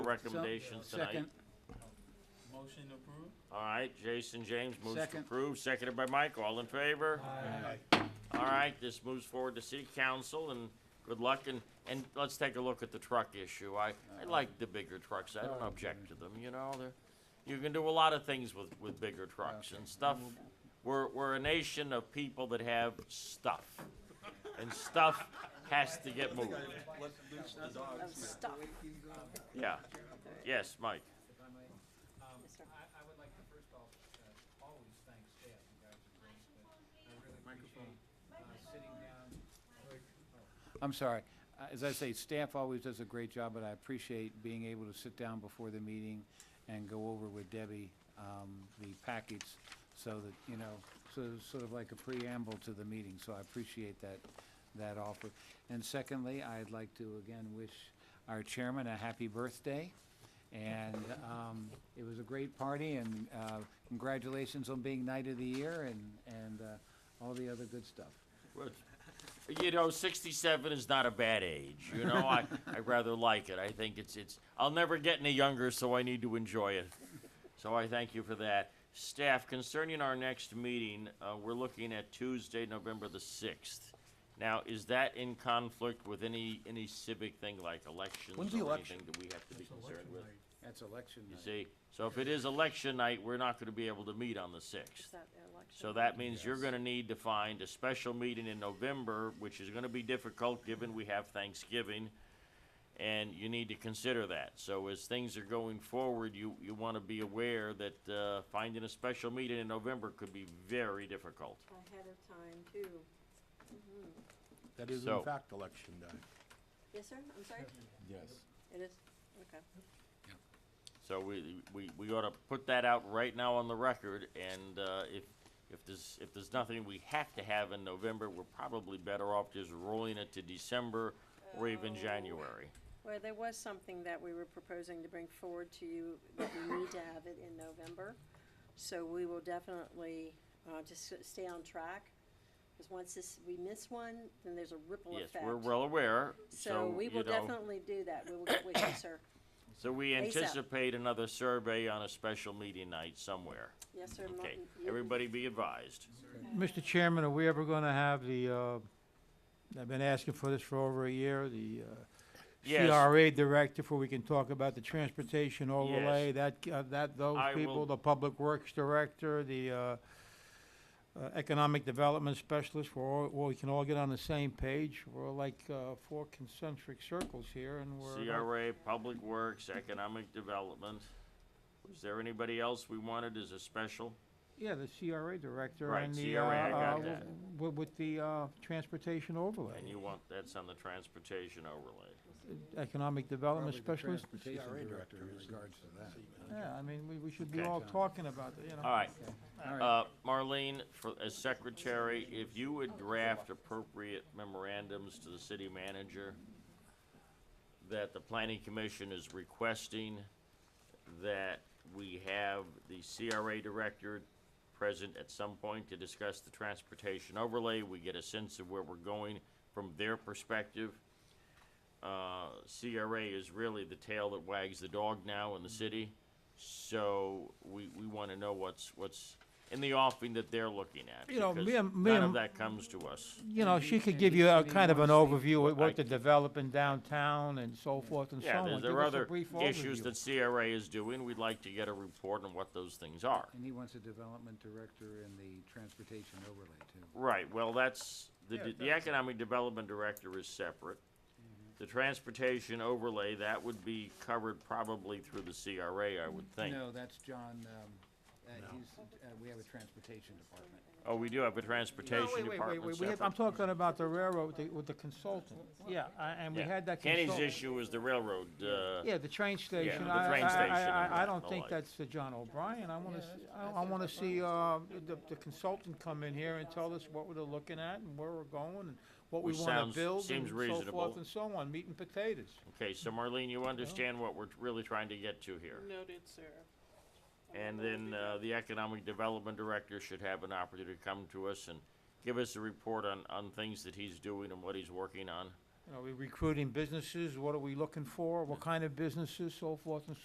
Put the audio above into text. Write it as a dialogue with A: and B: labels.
A: recommendations tonight.
B: Second,
C: Motion approved?
A: All right, Jason James moves to
B: Second.
A: approve, seconded by Mike, all in favor? All right, this moves forward to city council, and good luck, and, and let's take a look at the truck issue. I, I like the bigger trucks, I don't object to them, you know, they're, you can do a lot of things with, with bigger trucks and stuff. We're, we're a nation of people that have stuff, and stuff has to get moved,
C: Let loose the dogs.
D: of stuff.
A: yeah. Yes, Mike,
E: Um,
D: Yes, sir.
E: I, I would like to first off, uh, always thank staff, you guys are great, but I really appreciate, uh, sitting down.
B: I'm sorry. Uh, As I say, staff always does a great job, but I appreciate being able to sit down before the meeting and go over with Debbie um, the package so that, you know, so sort of like a preamble to the meeting, so I appreciate that, that offer. And secondly, I'd like to again wish our chairman a happy birthday. And um, it was a great party, and uh, congratulations on being Knight of the Year and, and uh, all the other good stuff.
A: Well, You know, sixty-seven is not a bad age. You know, I, I rather like it. I think it's it's. I'll never get any younger, so I need to enjoy it. So I thank you for that, staff. Concerning our next meeting, uh, we're looking at Tuesday, November the sixth. Now, is that in conflict with any any civic thing like elections
B: When's
A: or
B: the election?
A: anything that we have to be concerned with?
B: That's election
A: You
B: night.
A: see, so if it is election night, we're not going to be able to meet on the sixth.
D: Is that the election?
A: So that means you're gonna need to find a special meeting in November, which is gonna be difficult, given we have Thanksgiving. And you need to consider that. So as things are going forward, you, you wanna be aware that, uh, finding a special meeting in November could be very difficult.
D: Ahead of time, too.
F: That is
A: So-
F: in fact election day.
D: Yes, sir? I'm sorry?
F: Yes.
D: It is? Okay.
A: So we, we, we oughta put that out right now on the record, and, uh, if, if there's, if there's nothing we have to have in November, we're probably better off just rolling it to December or even
D: Oh.
A: January.
D: Well, there was something that we were proposing to bring forward to you that we need to have it in November. So we will definitely, uh, just s- stay on track. Because once this, we miss one, then there's a ripple
A: Yes,
D: effect.
A: we're well aware,
D: So
A: so,
D: we
A: you
D: will
A: know,
D: definitely do that. We will get with you, sir.
A: so we
D: ASAP.
A: anticipate another survey on a special meeting night somewhere.
D: Yes, sir.
A: Okay,
D: Martin, you-
A: everybody be advised.
G: Mr. Chairman, are we ever going to have the, uh, I've been asking for this for over a year, the uh,
A: Yes,
G: CRA director, for we can talk about the transportation overlay, that, uh, that, those
A: I will-
G: people, the public works director, the uh, uh, economic development specialist, we're all, well, we can all get on the same page. We're like uh, four concentric circles here, and we're, uh, like-
A: CRA, Public Works, Economic Development. Was there anybody else we wanted as a special?
G: yeah, the CRA director
A: Right,
G: and the, uh,
A: CRA, I got
G: uh,
A: that.
G: wi- with the uh, transportation
A: And
G: overlay,
A: you want, that's on the transportation overlay.
G: economic development
B: Probably the
G: specialist.
B: Transportation
F: CRA
B: director in
F: director is-
B: regards to that.
G: Yeah, I mean, we, we should be
A: Okay.
G: all talking about it, you know.
A: All right,
B: All right.
A: uh, Marlene, for, as secretary, if you would draft appropriate memorandums to the city manager that the planning commission is requesting that we have the CRA director present at some point to discuss the transportation overlay, we get a sense of where we're going from their perspective. Uh, CRA is really the tail that wags the dog now
G: Mm-hmm.
A: in the city, so we, we wanna know what's, what's in the offing that they're looking at.
G: You know, me
A: because
G: and- me
A: None of
G: and-
A: that comes to us.
G: You know,
B: And
G: she
B: the-
G: could
B: and
G: give
B: the
G: you a
B: city
G: kind of an
B: wants
G: overview of
A: I-
G: what they're developing downtown and so forth and so
A: Yeah,
G: on.
A: there,
G: Give
A: there are
G: us a
A: other
G: brief
A: issues
G: overview.
A: that CRA is doing, we'd like to get a report on what those things are.
B: And he wants a development director in the transportation overlay too.
A: Right, well, that's, the,
G: Yeah,
A: the economic development director is separate.
G: Mm-hmm.
A: The transportation overlay, that would be covered probably through the CRA, I would
G: Mm-hmm.
A: think.
B: No, that's John, um, uh, he's, uh, we have a transportation department.
A: Oh, we do have a
G: No,
A: transportation
G: wait, wait, wait,
A: department
G: wait, we have, I'm
A: separate.
G: talking about the railroad, the- with the consultant, yeah, I- and we
A: Yeah.
G: had that
A: Kenny's
G: consultant.
A: issue is the railroad, uh,
G: Yeah, the train station,
A: the
G: I, I,
A: train station and
G: I- I, I
A: that
G: don't
A: and the
G: think
A: like.
G: that's the John O'Brien, I wanna, see- I, I wanna see, uh, the, the consultant come in here and tell us what we're looking at and where we're going and what we
A: Which
G: wanna
A: sounds-
G: build and
A: seems
G: so
A: reasonable.
G: forth and so on, meat and potatoes.
A: okay, so Marlene, you understand what we're really trying to get to here?
C: Noted, sir.
A: And then, uh, the economic development director should have an opportunity to come to us and give us a report on, on things that he's doing and what he's working on.
G: You know, we recruiting businesses, what are we looking for, what kind of businesses, so forth and so